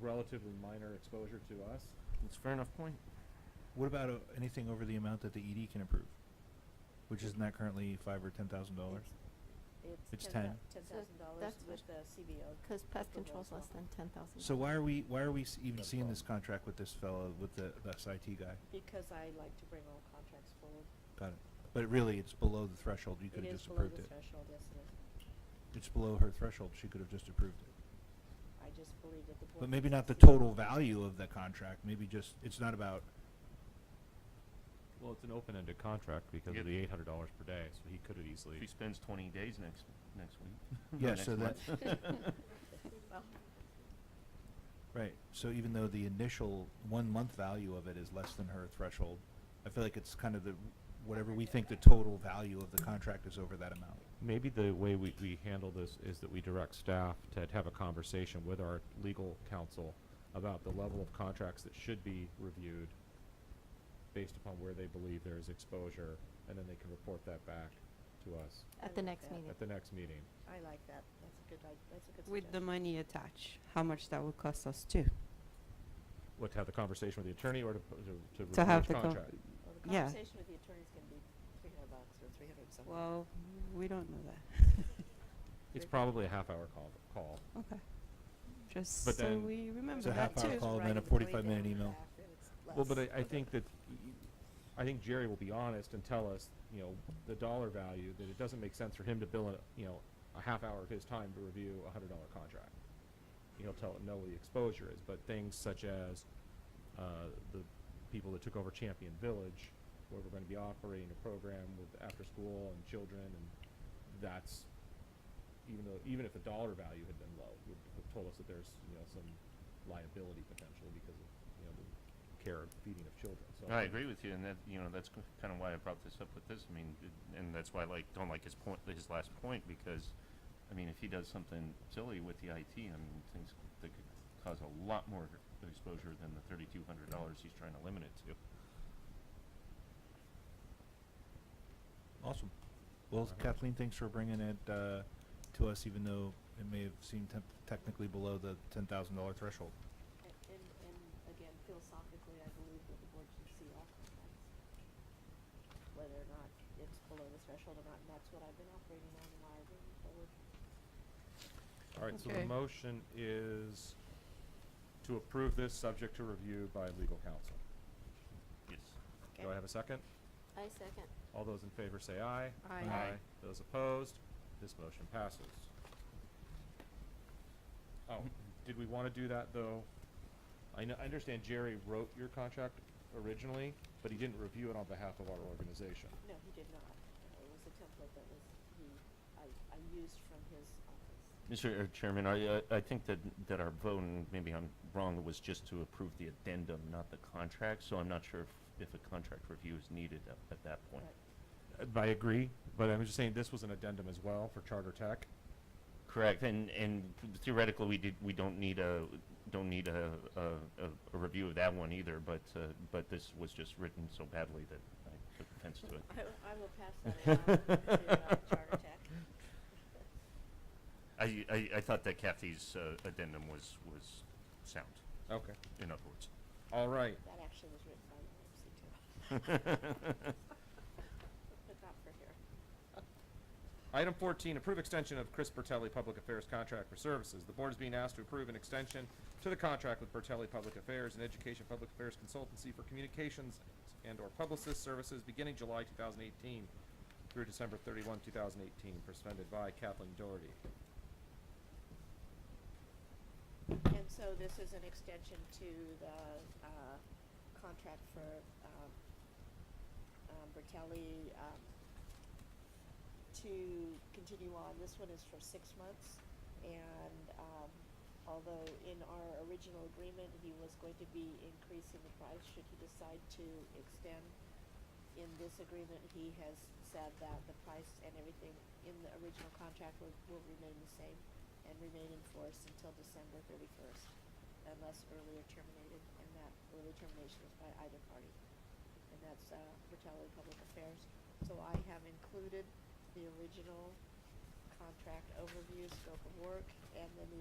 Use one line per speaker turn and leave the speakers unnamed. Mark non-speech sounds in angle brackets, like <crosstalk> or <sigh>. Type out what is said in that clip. relatively minor exposure to us.
That's a fair enough point.
What about uh, anything over the amount that the ED can approve? Which isn't that currently five or ten thousand dollars? It's
It's
ten.
Ten
So
thousand dollars
that's
with the CBO.
Because pest
approval
control's
as well.
less than ten thousand.
So why are we why are we s- even
Not a
seeing this contract with this fellow with the, the SIT guy?
Because I like to bring all contracts forward.
Got it. But really, it's below the threshold. You could have just approved
It is below
it.
the threshold, yes it is.
It's below her threshold. She could have just approved it.
I just believe that the board.
But maybe not the
needs to be-
total value of the contract. Maybe just it's not about.
Well, it's an open-ended contract because
Yep.
of the eight hundred dollars per day, so he could have
If he
easily.
spends twenty days next, next week.
Yeah,
or
so
next month.
Well,
Right. So even though the initial one month value of it is less than her threshold, I feel like it's kind of the whatever we think the total value of the contract is over that amount.
Maybe the way we, we handle this is that we direct staff to have a conversation with our legal counsel about the level of contracts that should be reviewed based upon where they believe there is exposure, and then they can report that back to us
At the next
Yeah.
meeting.
at the next meeting.
I like that. That's a good, i- that's a good suggestion.
With the money attached, how much that will cost us too?
What, to have the conversation with the attorney or to, p- to, to
To
review
have
each
the, con-
contract?
Well, the
yeah.
conversation with the attorney's gonna be three hundred bucks or three hundred something.
well, we don't know that.
It's probably a half-hour call, call.
Okay. Just
But
so
then-
we remember
It's a
that
half-hour
too.
call and then a
Writing way
45 minute
down
email.
after it's
Well, but
less.
I, I think that, I think Jerry will be honest and tell us, you know, the dollar value, that it doesn't make sense for him to bill, a- you know, a half hour of his time to review a hundred dollar contract. He'll tell, know what the exposure is, but things such as, uh, the people that took over Champion Village, where we're gonna be operating a program with after-school and children, and that's, even though, even if the dollar value had been low, would have told us that there's, you know, some liability potential because of, you know, the care and feeding of children, so. think-
I agree with you, and that, you know, that's kind of why I brought this up with this, I mean, it- and that's why I like, don't like his point, his last point, because, I mean, if he does something silly with the IT, I mean, things that could cause a lot more exposure than the thirty-two hundred dollars he's trying to limit it to.
Awesome. Well,
Alright.
Kathleen, thanks for bringing it uh, to us, even though it may have seemed temp- technically below the ten thousand dollar threshold.
A- And, and again, philosophically, I believe that the board should see all contracts. Whether or not it's below the threshold or not, and that's what I've been operating on in my agreement forward.
All right, so the
Okay.
motion is to approve this subject to review by legal counsel.
Yes.
Do I have a second?
I second.
All those in favor say aye.
Aye.
Aye.
Those opposed, this motion passes. Oh, did we want to do that, though? I know, I understand Jerry wrote your contract originally, but he didn't review it on behalf of our organization.
No, he did not. Uh, It was a template that was, he, I, I used from his office.
Mr. uh, Chairman, I, I- I think that, that our vote, and maybe I'm wrong, was just to approve the addendum, not the contract, so I'm not sure if, if a contract review is needed at, at that point.
Right.
Uh, I agree, but I'm just saying this was an addendum as well for Charter Tech.
Correct, and, and theoretically, we did, we don't need a, don't need a, a, a- a review of that one either, but, uh, but this was just written so badly that I took offense
<laughs>
to it.
I, will- I will pass that along to uh, Charter Tech.
I, I, I thought that Kathy's uh, addendum was, was sound,
Okay.
in other words.
All right,
That actually was written by Ramsey too. <laughs> But not for here.
Item fourteen, approve extension of Chris Bertelli Public Affairs contract for services. The board is being asked to approve an extension to the contract with Bertelli Public Affairs and Education Public Affairs Consultancy for communications and/or publicist services beginning July two thousand eighteen through December thirty-one, two thousand eighteen, presented by Kathleen Doherty.
And so this is an extension to the, uh, contract for, um, um, Bertelli, um, to continue on. This one is for six months. And, um, although in our original agreement, he was going to be increasing the price should he decide to extend. In this agreement, he has said that the price and everything in the original contract will, will remain the same and remain in force until December thirty-first, unless earlier terminated, and that early termination is by either party. And that's, uh, Bertelli Public Affairs. So I have included the original contract overview, scope of work, and then the